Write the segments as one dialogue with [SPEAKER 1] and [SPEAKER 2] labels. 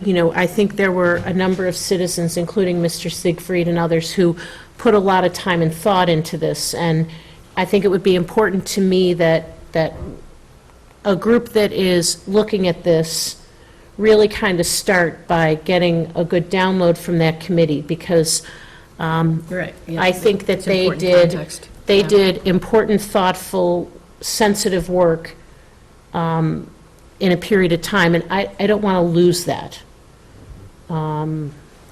[SPEAKER 1] you know, I think there were a number of citizens, including Mr. Siegfried and others, who put a lot of time and thought into this, and I think it would be important to me that, that a group that is looking at this really kind of start by getting a good download from that committee, because
[SPEAKER 2] You're right. yeah.
[SPEAKER 1] I think that
[SPEAKER 2] It's
[SPEAKER 1] they
[SPEAKER 2] important
[SPEAKER 1] did,
[SPEAKER 2] context.
[SPEAKER 1] they
[SPEAKER 2] Yeah.
[SPEAKER 1] did important, thoughtful, sensitive work um, in a period of time, and I, I don't want to lose that,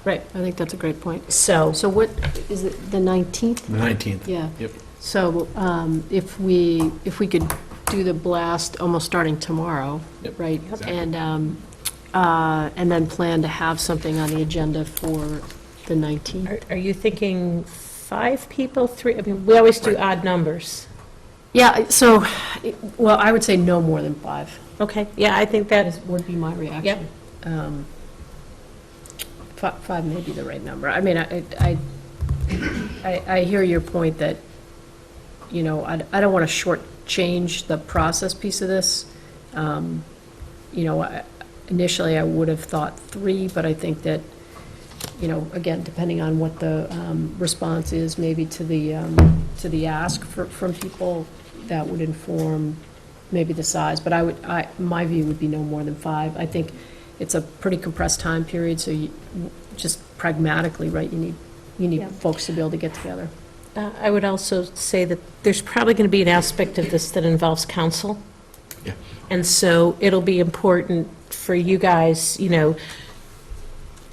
[SPEAKER 2] Right, I think that's a great point.
[SPEAKER 1] so.
[SPEAKER 2] So what, is it the 19th?
[SPEAKER 3] The 19th.
[SPEAKER 2] Yeah.
[SPEAKER 3] Yep.
[SPEAKER 2] So um, if we, if we could do the blast almost starting tomorrow,
[SPEAKER 3] Yep,
[SPEAKER 2] right?
[SPEAKER 3] exactly.
[SPEAKER 2] And, um, uh, and then plan to have something on the agenda for the 19th?
[SPEAKER 1] Are- Are you thinking five people, three, I mean, we always do odd numbers.
[SPEAKER 2] Yeah, I- so, it- well, I would say no more than five,
[SPEAKER 1] Okay, yeah, I think that is,
[SPEAKER 2] is- would be my reaction. Um, fi- Five may be the right number. I mean, I, I, I I hear your point that, you know, I I don't want to shortchange the process piece of this. Um, You know, I- initially, I would have thought three, but I think that, you know, again, depending on what the um, response is, maybe to the, um, to the ask for- from people, that would inform maybe the size, but I would, I, my view would be no more than five. I think it's a pretty compressed time period, so you, just pragmatically, right, you need, you need
[SPEAKER 1] Yeah.
[SPEAKER 2] folks to be able to get together.
[SPEAKER 1] uh, I would also say that there's probably going to be an aspect of this that involves council.
[SPEAKER 3] Yeah.
[SPEAKER 1] And so it'll be important for you guys, you know,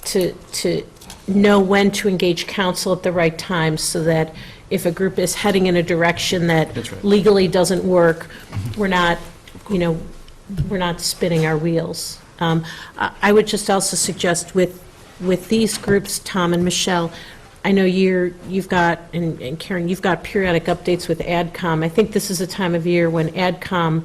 [SPEAKER 1] to, to know when to engage council at the right time so that if a group is heading in a direction that
[SPEAKER 3] That's right.
[SPEAKER 1] legally doesn't work, we're not, you know, we're not spinning our wheels. Um, I I would just also suggest with, with these groups, Tom and Michelle, I know you're, you've got, and and Karen, you've got periodic updates with AdCom. I think this is a time of year when AdCom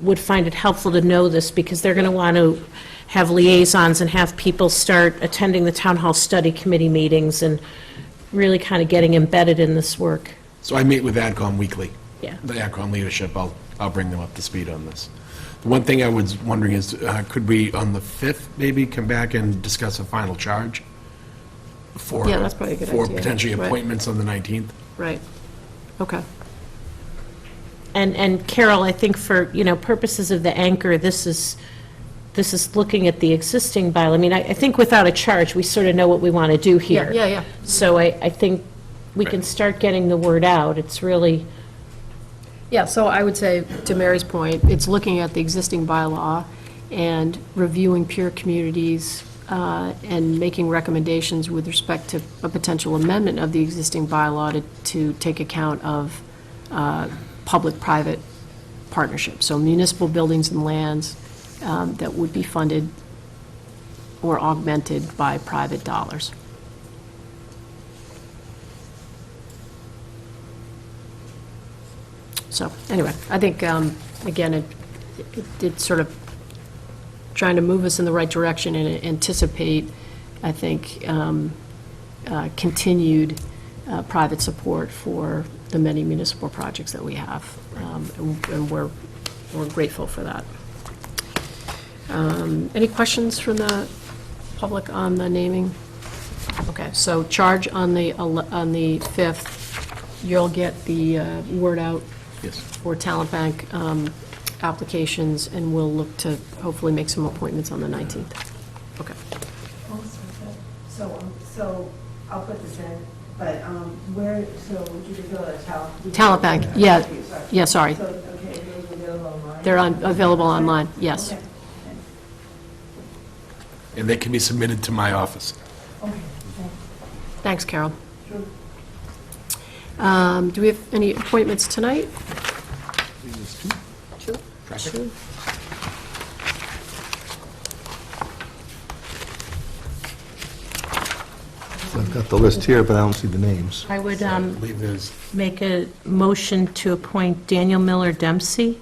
[SPEAKER 1] would find it helpful to know this, because they're going to want to have liaisons and have people start attending the town hall study committee meetings and really kind of getting embedded in this work.
[SPEAKER 3] So I meet with AdCom weekly.
[SPEAKER 1] Yeah.
[SPEAKER 3] The AdCom leadership, I'll, I'll bring them up to speed on this. The one thing I was wondering is, uh, could we, on the 5th, maybe come back and discuss a final charge? for
[SPEAKER 2] Yeah, that's probably a good
[SPEAKER 3] For
[SPEAKER 2] idea.
[SPEAKER 3] potentially
[SPEAKER 2] Right.
[SPEAKER 3] appointments on the 19th?
[SPEAKER 2] Right. Okay.
[SPEAKER 1] And, and Carol, I think for, you know, purposes of the anchor, this is, this is looking at the existing bylaw. I mean, I, I think without a charge, we sort of know what we want to do here.
[SPEAKER 2] Yeah, yeah, yeah.
[SPEAKER 1] So I, I think we can
[SPEAKER 3] Right.
[SPEAKER 1] start getting the word out. It's really,
[SPEAKER 2] Yeah, so I would say, to Mary's point, it's looking at the existing bylaw and reviewing peer communities uh, and making recommendations with respect to a potential amendment of the existing bylaw to, to take account of uh, public-private partnerships. So municipal buildings and lands um, that would be funded or augmented by private dollars. So, anyway, I think, um, again, it, it- it's sort of trying to move us in the right direction and anticipate, I think, um, uh, continued uh, private support for the many municipal projects that we have. Um, And and we're, we're grateful for that. Um, Any questions from the public on the naming? Okay, so charge on the, ele- on the 5th, you'll get the uh, word out
[SPEAKER 3] Yes.
[SPEAKER 2] for talent bank um, applications, and we'll look to hopefully make some appointments on the 19th. Okay.
[SPEAKER 4] So, um, so I'll put this in, but um, where, so would you just go to talent?
[SPEAKER 2] Talent bank, yeah,
[SPEAKER 4] Sorry.
[SPEAKER 2] yeah, sorry.
[SPEAKER 4] So, okay, those are available online?
[SPEAKER 2] They're on, available online, yes.
[SPEAKER 4] Okay.
[SPEAKER 3] And they can be submitted to my office.
[SPEAKER 4] Okay.
[SPEAKER 2] Thanks, Carol.
[SPEAKER 4] Sure.
[SPEAKER 2] Um, Do we have any appointments tonight?
[SPEAKER 3] Traffic?
[SPEAKER 5] I've got the list here, but I don't see the names.
[SPEAKER 1] I would
[SPEAKER 3] I
[SPEAKER 1] um,
[SPEAKER 3] believe there's,
[SPEAKER 1] make a motion to appoint Daniel Miller Dempsey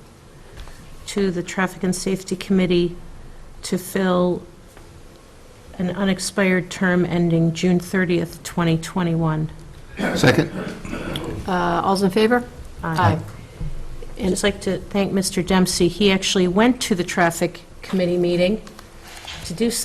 [SPEAKER 1] to the Traffic and Safety Committee to fill an unexpired term ending June 30th, 2021.
[SPEAKER 5] Second?
[SPEAKER 2] Uh, All's in favor?
[SPEAKER 1] Uh,
[SPEAKER 2] Aye.
[SPEAKER 1] And just like to thank Mr. Dempsey. He actually went to the Traffic Committee meeting to do something